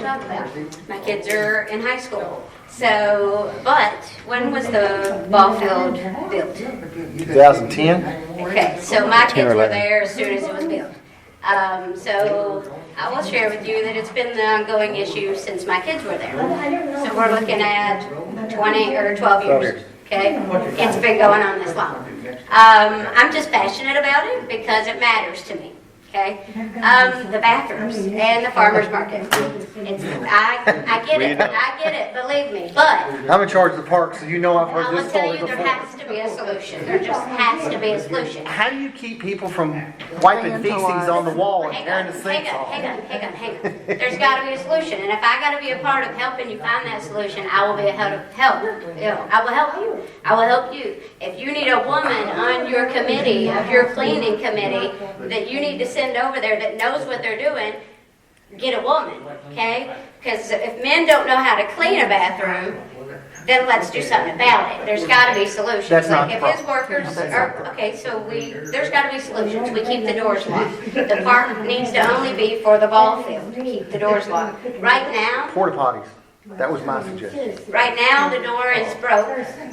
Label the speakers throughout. Speaker 1: talk about. My kids are in high school. So, but when was the ball field built?
Speaker 2: 2010?
Speaker 1: Okay, so my
Speaker 2: Ten or
Speaker 1: kids were
Speaker 2: eleven.
Speaker 1: there as soon as it was built. Um, so I will share with you that it's been the ongoing issue since my kids were there. So we're looking at 20 or 12 years, okay? It's been going on this long. Um, I'm just passionate about it because it matters to me, okay? Um, the bathrooms and the farmer's market. It's, I, I get it, I get it, believe me, but
Speaker 2: I'm in charge of the park, so you know I've
Speaker 1: I
Speaker 2: heard
Speaker 1: will
Speaker 2: this
Speaker 1: tell
Speaker 2: story
Speaker 1: you, there
Speaker 2: before.
Speaker 1: has to be a solution. There just has to be a solution.
Speaker 2: How do you keep people from wiping feces on the wall and
Speaker 1: Hang
Speaker 2: tearing
Speaker 1: on,
Speaker 2: the
Speaker 1: hang
Speaker 2: sinks
Speaker 1: on,
Speaker 2: off?
Speaker 1: hang on, hang on, hang on. There's got to be a solution, and if I got to be a part of helping you find that solution, I will be a help, help, you know, I will help you. I will help you. If you need a woman on your committee, of your cleaning committee, that you need to send over there that knows what they're doing, get a woman, okay? Because if men don't know how to clean a bathroom, then let's do something about it. There's got to be solutions.
Speaker 2: That's not
Speaker 1: Like
Speaker 2: the
Speaker 1: if his workers are, okay, so we, there's got to be solutions. We keep the doors locked. The park needs to only be for the ball field. Keep the doors locked. Right now,
Speaker 2: Porta potties. That was my suggestion.
Speaker 1: right now, the door is broke.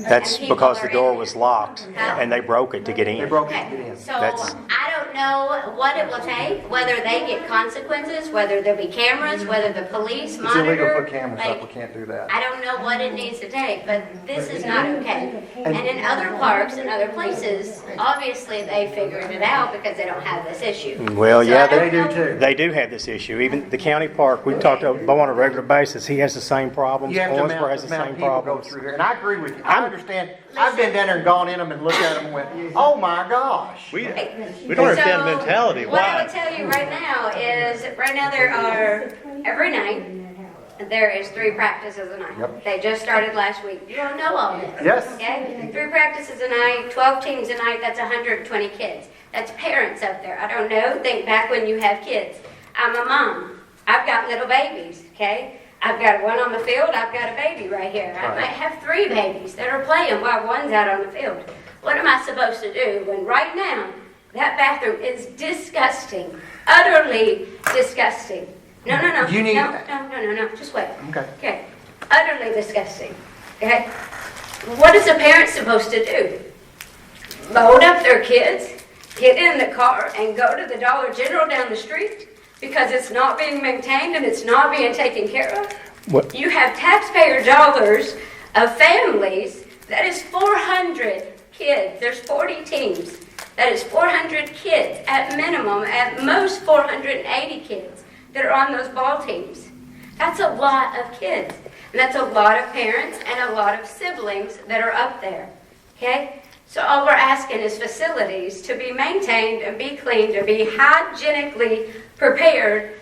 Speaker 3: That's
Speaker 1: and people
Speaker 3: because
Speaker 1: are
Speaker 3: the
Speaker 1: in
Speaker 3: door
Speaker 1: it.
Speaker 3: was locked and they broke it to get
Speaker 2: They
Speaker 3: in.
Speaker 2: broke it to get
Speaker 1: Okay,
Speaker 2: in.
Speaker 1: so
Speaker 3: That's-
Speaker 1: I don't know what it will take, whether they get consequences, whether there be cameras, whether the police
Speaker 2: It's illegal to
Speaker 1: monitor.
Speaker 2: put cameras up, we
Speaker 1: Like,
Speaker 2: can't do that.
Speaker 1: I don't know what it needs to take, but this is not okay. And in other parks and other places, obviously they figured it out because they don't have this issue.
Speaker 3: Well,
Speaker 1: So
Speaker 3: yeah,
Speaker 1: I don't
Speaker 2: They do
Speaker 1: know-
Speaker 2: too.
Speaker 3: They do have this issue. Even the county park, we've talked to Bo on a regular basis. He has the same problems.
Speaker 2: You have to
Speaker 3: Owensboro
Speaker 2: amount
Speaker 3: has
Speaker 2: the
Speaker 3: the
Speaker 2: amount of
Speaker 3: same
Speaker 2: people go
Speaker 3: problems.
Speaker 2: through here, and I agree with you, I understand, I've been down there and gone in them and looked at them and went, oh my gosh.
Speaker 4: We,
Speaker 1: Right.
Speaker 4: we don't understand the
Speaker 1: So,
Speaker 4: mentality.
Speaker 1: What I would
Speaker 4: Why?
Speaker 1: tell you right now is, right now there are, every night, there is three practices a night.
Speaker 2: Yep.
Speaker 1: They just started last week. You don't know all this.
Speaker 2: Yes.
Speaker 1: Okay, three practices a night, 12 teams a night, that's 120 kids. That's parents up there. I don't know, think back when you have kids. I'm a mom. I've got little babies, okay? I've got one on the field, I've got a baby right here. I
Speaker 2: Right.
Speaker 1: might have three babies that are playing while one's out on the field. What am I supposed to do when right now that bathroom is disgusting, utterly disgusting? No, no, no.
Speaker 2: You need-
Speaker 1: No, no, no, no, no. Just wait.
Speaker 2: Okay.
Speaker 1: Okay, utterly disgusting. Okay, what is a parent supposed to do? Load up their kids, get in the car, and go to the Dollar General down the street because it's not being maintained and it's not being taken care of?
Speaker 3: What-
Speaker 1: You have taxpayer dollars of families, that is 400 kids, there's 40 teams. That is 400 kids at minimum, at most 480 kids that are on those ball teams. That's a lot of kids. And that's a lot of parents and a lot of siblings that are up there. Okay? So all we're asking is facilities to be maintained and be cleaned and be hygienically prepared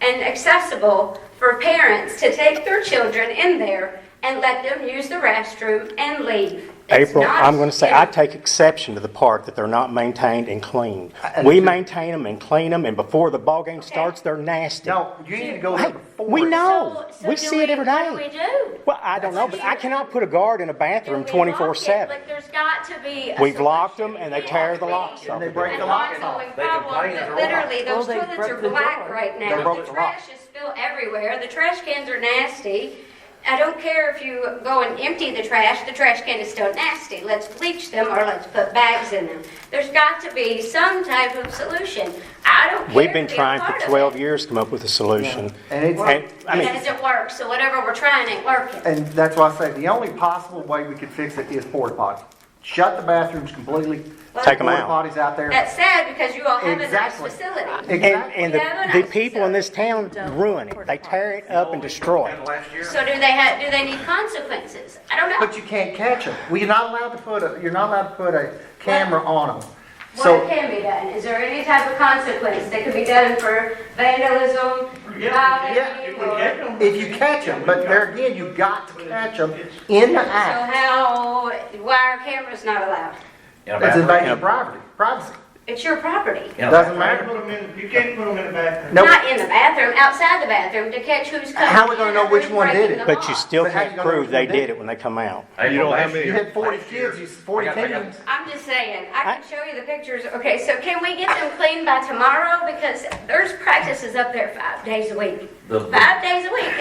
Speaker 1: and accessible for parents to take their children in there and let them use the restroom and leave. It's
Speaker 3: April,
Speaker 1: not-
Speaker 3: I'm going to say, I take exception to the park that they're not maintained and cleaned. We maintain them and clean them, and before the ball game starts, they're nasty.
Speaker 2: No, you need to go there
Speaker 3: Hey,
Speaker 2: before.
Speaker 3: we
Speaker 2: it-
Speaker 3: know.
Speaker 1: So- so
Speaker 3: We
Speaker 1: do
Speaker 3: see it every
Speaker 1: What do
Speaker 3: day.
Speaker 1: we do?
Speaker 3: Well, I don't know, but I cannot put a guard in a bathroom
Speaker 1: And we lock it,
Speaker 3: 24/7
Speaker 1: But there's got to be a
Speaker 3: We've locked
Speaker 1: solution.
Speaker 3: them and they tear the locks
Speaker 1: An
Speaker 3: off.
Speaker 2: And they break the locks off.
Speaker 1: ongoing problem that Literally, those toilets are black right now.
Speaker 2: They broke
Speaker 1: The
Speaker 2: the
Speaker 1: trash is spilled everywhere. The trash cans are nasty. I don't care if you go and empty the trash, the trash can is still nasty. Let's bleach them or let's put bags in them. There's got to be some type of solution. I don't care.
Speaker 3: We've been
Speaker 1: to be a
Speaker 3: trying
Speaker 1: part
Speaker 3: for
Speaker 1: of it.
Speaker 3: 12 years to come up with a solution.
Speaker 2: And it's-
Speaker 3: I
Speaker 1: It
Speaker 3: mean,
Speaker 1: doesn't work, so whatever we're trying ain't working.
Speaker 2: And that's why I say, the only possible way we could fix it is porta potties. Shut the bathrooms completely.
Speaker 3: Take 'em out.
Speaker 2: Porta potties out there.
Speaker 1: That's sad because you all have a nice
Speaker 2: Exactly.
Speaker 1: facility.
Speaker 2: Exactly.
Speaker 3: And, and the, the people in this town ruin it. They tear it up and destroy it.
Speaker 1: So do they have, do they need consequences? I don't know.
Speaker 2: But you can't catch them. Well, you're not allowed to put a, you're not allowed to put a camera on them.
Speaker 1: What
Speaker 2: So,
Speaker 1: can be done? Is there any type of consequence that could be done for vandalism, rioting, or?
Speaker 2: if you catch them, but there again, you got to catch them in the
Speaker 1: So
Speaker 2: act.
Speaker 1: how, why are cameras not allowed?
Speaker 2: It's invasion of privacy, privacy.
Speaker 1: It's your property.
Speaker 2: Doesn't
Speaker 5: Can't
Speaker 2: matter.
Speaker 5: put 'em in- You can't put them in the bathroom.
Speaker 2: Nope.
Speaker 1: Not in the bathroom, outside the bathroom to catch who's coming.
Speaker 2: How we gonna
Speaker 1: in
Speaker 2: know
Speaker 1: or
Speaker 2: which
Speaker 1: who's
Speaker 2: one did
Speaker 1: breaking
Speaker 2: it?
Speaker 1: the
Speaker 3: But you
Speaker 1: law?
Speaker 3: still
Speaker 2: But how
Speaker 3: can't
Speaker 2: you gonna know
Speaker 3: prove
Speaker 2: which one
Speaker 3: they
Speaker 2: did
Speaker 3: did it when they come out.
Speaker 4: You don't have
Speaker 2: You
Speaker 4: any.
Speaker 2: had forty kids, you, forty teams.
Speaker 1: I'm just saying, I can show you the pictures. Okay, so can we get them cleaned by tomorrow? Because there's practices up there five days a week. Five days a week.